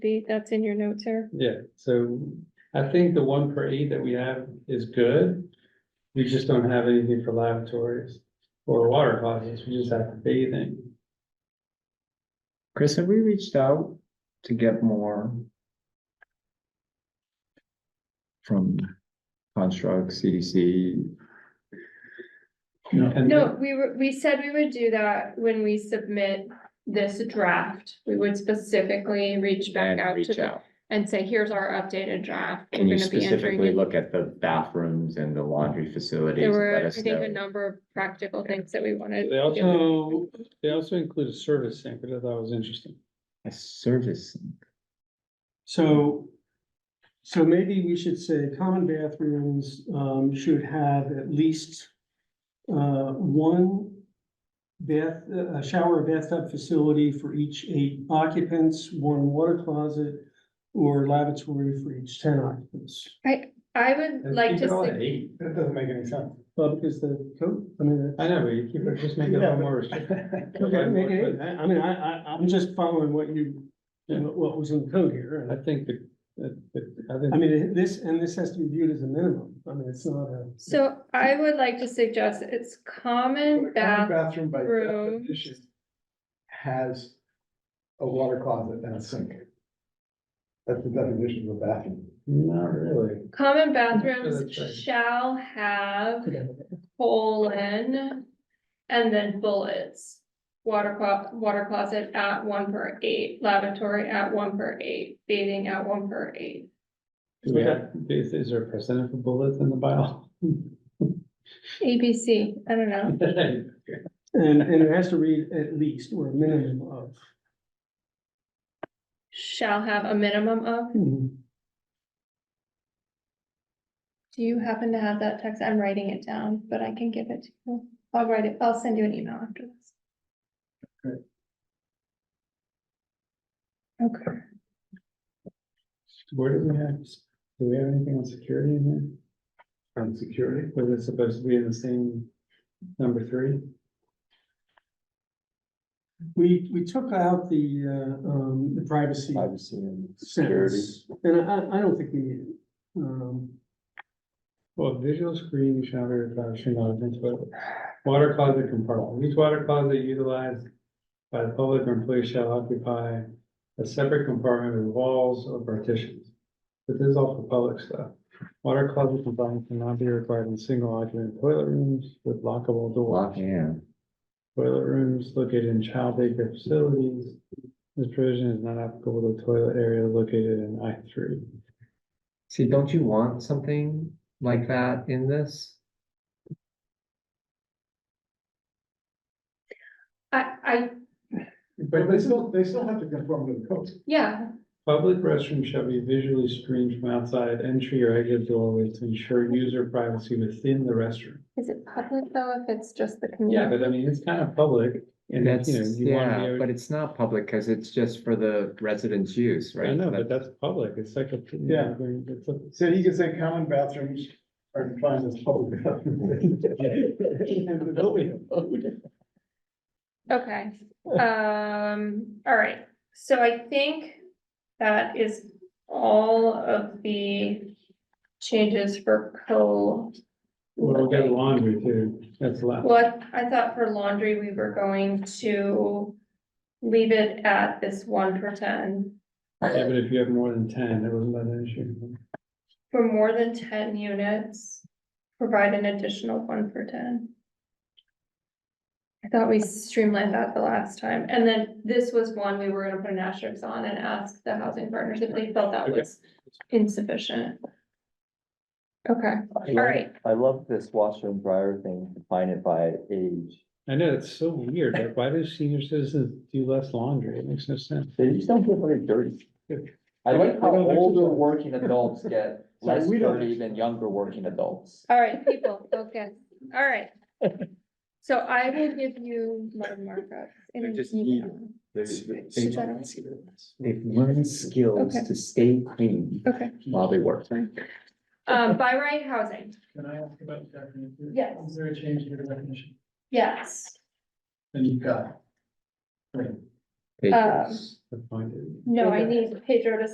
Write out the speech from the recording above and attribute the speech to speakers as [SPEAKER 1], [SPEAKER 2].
[SPEAKER 1] be, that's in your notes here.
[SPEAKER 2] Yeah, so I think the one per eight that we have is good. We just don't have anything for lavatories or water closets, we just have bathing.
[SPEAKER 3] Chris, have we reached out to get more? From Construct, CDC,
[SPEAKER 2] And
[SPEAKER 1] No, we were, we said we would do that when we submit this draft. We would specifically reach back
[SPEAKER 3] and
[SPEAKER 1] out to
[SPEAKER 3] reach
[SPEAKER 1] them
[SPEAKER 3] out?
[SPEAKER 1] and say, here's our updated draft. We're
[SPEAKER 3] Can you
[SPEAKER 1] gonna be entering
[SPEAKER 3] specifically
[SPEAKER 1] in-
[SPEAKER 3] look at the bathrooms and the laundry facilities?
[SPEAKER 1] There
[SPEAKER 3] and
[SPEAKER 1] were,
[SPEAKER 3] let
[SPEAKER 1] I
[SPEAKER 3] us
[SPEAKER 1] think, a
[SPEAKER 3] know?
[SPEAKER 1] number of practical things that we wanted.
[SPEAKER 2] They
[SPEAKER 1] to do.
[SPEAKER 2] also, they also include a service sink, which I thought was interesting.
[SPEAKER 3] A service,
[SPEAKER 4] So, so maybe we should say common bathrooms, um, should have at least, uh, one bath, a shower bathtub facility for each eight occupants, one water closet, or lavatory for each ten occupants.
[SPEAKER 1] I, I would like
[SPEAKER 2] Keep it all
[SPEAKER 1] to,
[SPEAKER 2] at
[SPEAKER 1] see-
[SPEAKER 2] Eight, that doesn't make any sense.
[SPEAKER 4] Well, because the code, I mean,
[SPEAKER 2] I know, but you keep it, just make it a little more
[SPEAKER 4] okay, make
[SPEAKER 2] restrictive.
[SPEAKER 4] it- I, I mean, I, I, I'm just following what you, what what was in the code here.
[SPEAKER 2] I
[SPEAKER 4] and
[SPEAKER 2] think the, the- the- I think.
[SPEAKER 4] I mean, this, and this has to be viewed as a minimum. I mean, it's not a.
[SPEAKER 1] so I would like to suggest it's common
[SPEAKER 5] Common
[SPEAKER 1] bath,
[SPEAKER 5] Bathroom by
[SPEAKER 1] rooms.
[SPEAKER 5] definition has a water closet and a sink. That's the definition of a bathroom.
[SPEAKER 2] Not really.
[SPEAKER 1] common
[SPEAKER 2] That's right.
[SPEAKER 1] bathrooms shall have colon, and then bullets. Water clo- water closet at one per eight, lavatory at one per eight, bathing at one per eight.
[SPEAKER 2] Do we have, is, is there a percentage of bullets in the bio?
[SPEAKER 1] ABC, I don't know.
[SPEAKER 4] And, and it has to read at least or a minimum of.
[SPEAKER 1] Shall have a minimum of, do you happen to have that text? I'm writing it down, but I can give it to you. I'll write it, I'll send you an email after this. Okay,
[SPEAKER 2] Where do we have, do we have anything on security in
[SPEAKER 5] And security,
[SPEAKER 2] here? Was it supposed to be in the same number three?
[SPEAKER 4] We, we took out the, uh, um, the privacy
[SPEAKER 3] privacy and security.
[SPEAKER 4] sentence, and I, I don't think we need it. Um,
[SPEAKER 2] Well, visual screening shall be reflection not identifiable. Water closet compartment. Each water closet utilized by the public or employees shall occupy a separate compartment with walls or partitions. But this is all for public stuff. Water closet compartment cannot be required in single occupant toilet rooms with lockable doors.
[SPEAKER 3] Lock in.
[SPEAKER 2] Toilet rooms located in child daycare facilities. This provision is not applicable to toilet area located in I three.
[SPEAKER 3] See, don't you want something like that in this?
[SPEAKER 1] I, I,
[SPEAKER 5] but they still, they still have to conform to the code.
[SPEAKER 1] yeah,
[SPEAKER 2] Public restrooms shall be visually screened from outside entry or exit doorways to ensure user privacy within the restroom.
[SPEAKER 1] is it public though, if it's just the
[SPEAKER 2] Yeah,
[SPEAKER 1] community?
[SPEAKER 2] but I mean, it's kind of public and
[SPEAKER 3] That's,
[SPEAKER 2] you know, you want
[SPEAKER 3] yeah,
[SPEAKER 2] to be.
[SPEAKER 3] but
[SPEAKER 2] able-
[SPEAKER 3] it's not public because it's just for the residents' use, right?
[SPEAKER 2] I know, but
[SPEAKER 3] That-
[SPEAKER 2] that's public. It's like a. you know,
[SPEAKER 5] Yeah.
[SPEAKER 2] it's a-
[SPEAKER 5] So you can say common bathrooms are defined as public bathrooms. In the building code.
[SPEAKER 1] Okay, um, all right, so I think that is all of the changes for co.
[SPEAKER 2] Well, we got laundry too. That's allowed.
[SPEAKER 1] What, I thought for laundry, we were going to leave it at this one per ten.
[SPEAKER 2] Yeah, but if you have more than ten, there wasn't that an issue.
[SPEAKER 1] For more than ten units, provide an additional one per ten. I thought we streamlined that the last time, and then this was one we were gonna put an asterisk on and ask the housing partners if they felt that
[SPEAKER 2] Okay.
[SPEAKER 1] was insufficient. Okay,
[SPEAKER 6] I
[SPEAKER 1] all
[SPEAKER 6] love-
[SPEAKER 1] right,
[SPEAKER 6] I love this washer and dryer thing, define it by age.
[SPEAKER 2] I know, it's so weird. Like, why do senior citizens do less laundry? It makes no sense.
[SPEAKER 6] They just don't get very dirty. I like how
[SPEAKER 2] They don't
[SPEAKER 6] older
[SPEAKER 2] exercise.
[SPEAKER 6] working adults get less
[SPEAKER 5] we don't
[SPEAKER 6] dirty than younger working adults.
[SPEAKER 1] all right, people, okay, all right. So I will give you my markups in an
[SPEAKER 3] just
[SPEAKER 1] email.
[SPEAKER 3] There's-
[SPEAKER 1] Should
[SPEAKER 3] they-
[SPEAKER 1] I-
[SPEAKER 3] They've learned skills
[SPEAKER 1] Okay.
[SPEAKER 3] to stay clean
[SPEAKER 1] Okay,
[SPEAKER 3] while they work.
[SPEAKER 1] um, by right housing,
[SPEAKER 5] Can I ask about the definition?
[SPEAKER 1] Yes.
[SPEAKER 5] Is there a change in the definition?
[SPEAKER 1] yes.
[SPEAKER 5] And you've got. Right.
[SPEAKER 3] Patrons.
[SPEAKER 2] That's fine.
[SPEAKER 1] No, I need Pedro to